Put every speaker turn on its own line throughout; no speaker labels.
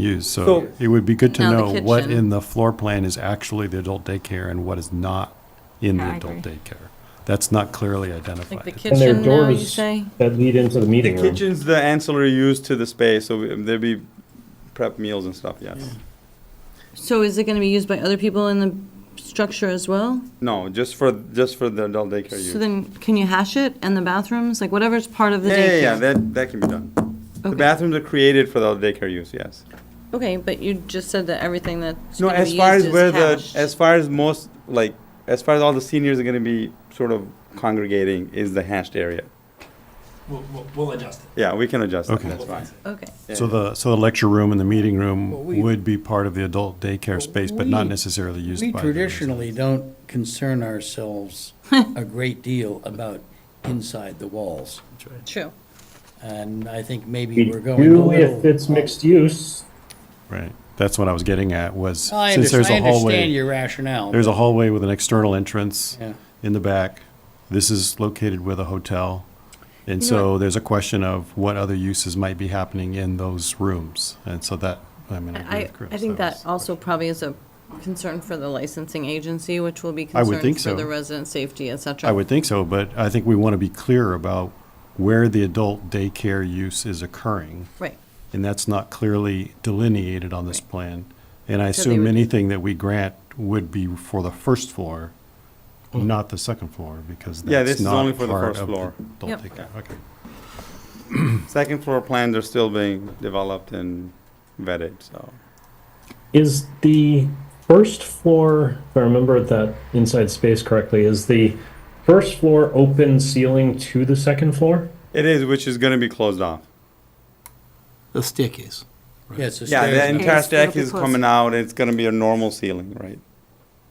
used, so
So-
it would be good to
Now the
know what
kitchen.
in the floor plan is actually the adult daycare and what is not in the
Yeah, I
adult
agree.
daycare. That's not clearly
Like the
identified.
And there are
kitchen now, you
doors
say?
that lead into the
The
meeting room.
kitchen's the ancillary use to the space, so we- there'd be prep meals and stuff, yes.
So is it gonna be used by other people in the structure as well?
No, just for, just for the adult daycare use.
So then, can you hash it and the bathrooms, like whatever's part of the
Yeah, yeah, yeah,
daycare?
that, that can be done. The
Okay.
bathrooms are created for the daycare use, yes.
Okay, but you just said that everything that's
No,
gonna be
as
used
far as where
is
the, as
hashed.
far as most, like, as far as all the seniors are gonna be sort of congregating is the hashed area.
We'll, we'll, we'll adjust it.
Yeah, we can adjust that,
Okay.
that's fine.
Okay,
So the, so the lecture room and the meeting room
Well, we-
would be part of the adult daycare space, but not
we-
necessarily used
We
by. the-
traditionally don't concern ourselves a great deal about inside the walls.
true.
And I think
We
maybe we're going a
do if it's
little.
mixed use.
Right, that's what I was getting at, was
I
since there's
understand, I
a
understand
hallway,
your rationale.
there's a hallway with an external entrance
Yeah.
in the back. This is located with a hotel. And
You know
so there's a question of what other uses might be happening in those rooms. And so that, I mean, I agree
I,
with Chris.
I think that
was-
also probably is a concern for the licensing agency, which will be
I would
concerned
think
for the
so.
resident safety, et cetera.
I would think so, but I think we want to be clear about where the adult daycare use is occurring.
Right,
And that's not clearly delineated on this plan. And I
So they
assume
would-
anything that we grant would be for the first floor, not the second floor, because
Yeah, this
that's
is only
not
for the
part
first
of the
floor.
adult
Yep.
daycare. Okay.
Second floor plans are still being developed and vetted, so.
Is the first floor, if I remember that inside space correctly, is the first floor open ceiling to the second floor?
It is, which is gonna be closed off.
The staircase.
Yeah, it's a
Yeah, the
stairs.
entire
Yes, it'll
stack
be
is
closed.
coming out, it's gonna be a normal ceiling, right?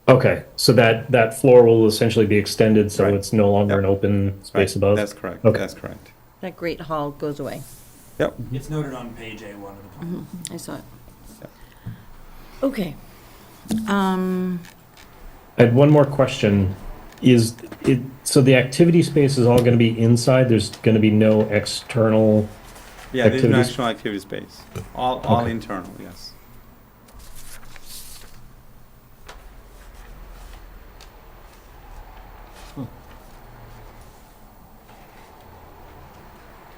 Okay, so that, that floor will essentially be extended, so
Right.
it's no longer
Yep.
an open space
Right,
above?
That's correct,
Okay.
that's correct.
that great hall goes away.
It's noted on page A1 of the plan.
I saw it. Okay. Um,
I had one more question. Is it, so the activity space is all going to be inside? There's going to be no external?
Yeah, there's no
Activities-
actual activity space, all, all
Okay.
internal, yes.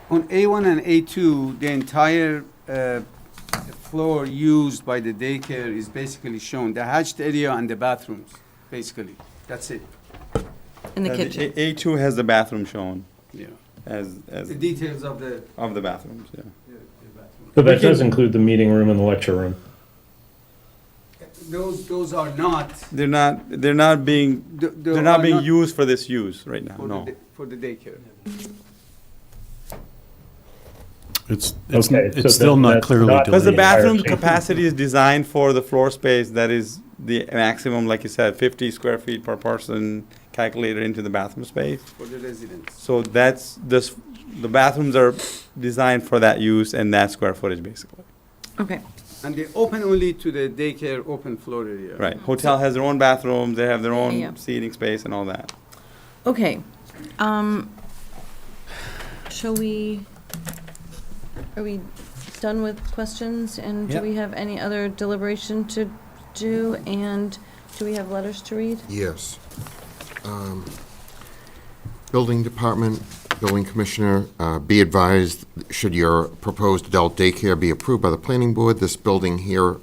On A1 and A2, the entire uh, floor used by the daycare is basically shown, the hatched area and the bathrooms, basically. That's it,
in the
Uh,
kitchen.
A- A2 has the bathroom shown
yeah.
as, as,
The details of the
of the bathrooms, yeah.
the- the bathroom.
So that does include the meeting room and the lecture room?
Those, those are not,
They're not, they're not being,
th- they
they're
are
not being used for this use right now,
for the
no.
da- For the daycare.
It's, it's,
Okay, so
it's still
that-
not
that's
clearly delineated.
not-
Because the
Building entire
bathroom
thing.
capacity is designed for the floor space that is the maximum, like you said, fifty square feet per person calculated into the bathroom space.
For the residents.
So that's, this, the bathrooms are designed for that use and that square footage basically,
Okay,
And they open only to the daycare open floor area.
right? Hotel has their own bathrooms, they have their
Mm-hmm. Yeah.
own seating space and all that.
okay. Um, shall we, are we done with questions? And do
Yep.
we have any other deliberation to do? And do we have letters to read?
Yes. Um, Building Department, Building Commissioner, uh, be advised, should your proposed adult daycare be approved by the planning board, this building here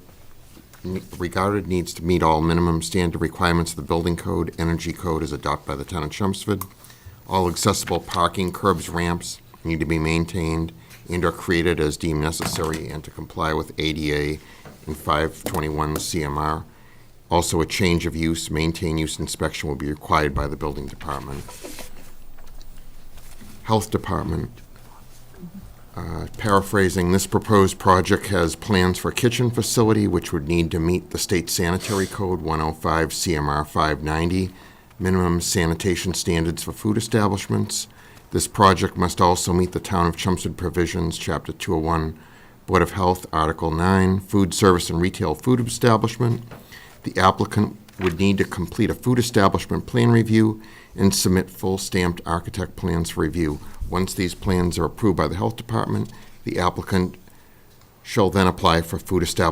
ne- regarded needs to meet all minimum standard requirements of the building code, energy code is adopted by the town of Chelmsford. All accessible parking, curbs, ramps need to be maintained and are created as deemed necessary and to comply with ADA and 521 CMR. Also, a change of use, maintain use inspection will be required by the building department. Health Department, uh, paraphrasing, this proposed project has plans for a kitchen facility which would need to meet the state sanitary code 105 CMR 590, minimum sanitation standards for food establishments. This project must also meet the Town of Chelmsford provisions, Chapter 201, Board of Health, Article 9, food service and retail food establishment. The applicant would need to complete a food establishment plan review and submit full stamped architect plans for review. Once these plans are approved by the Health Department, the applicant shall then apply for food establishment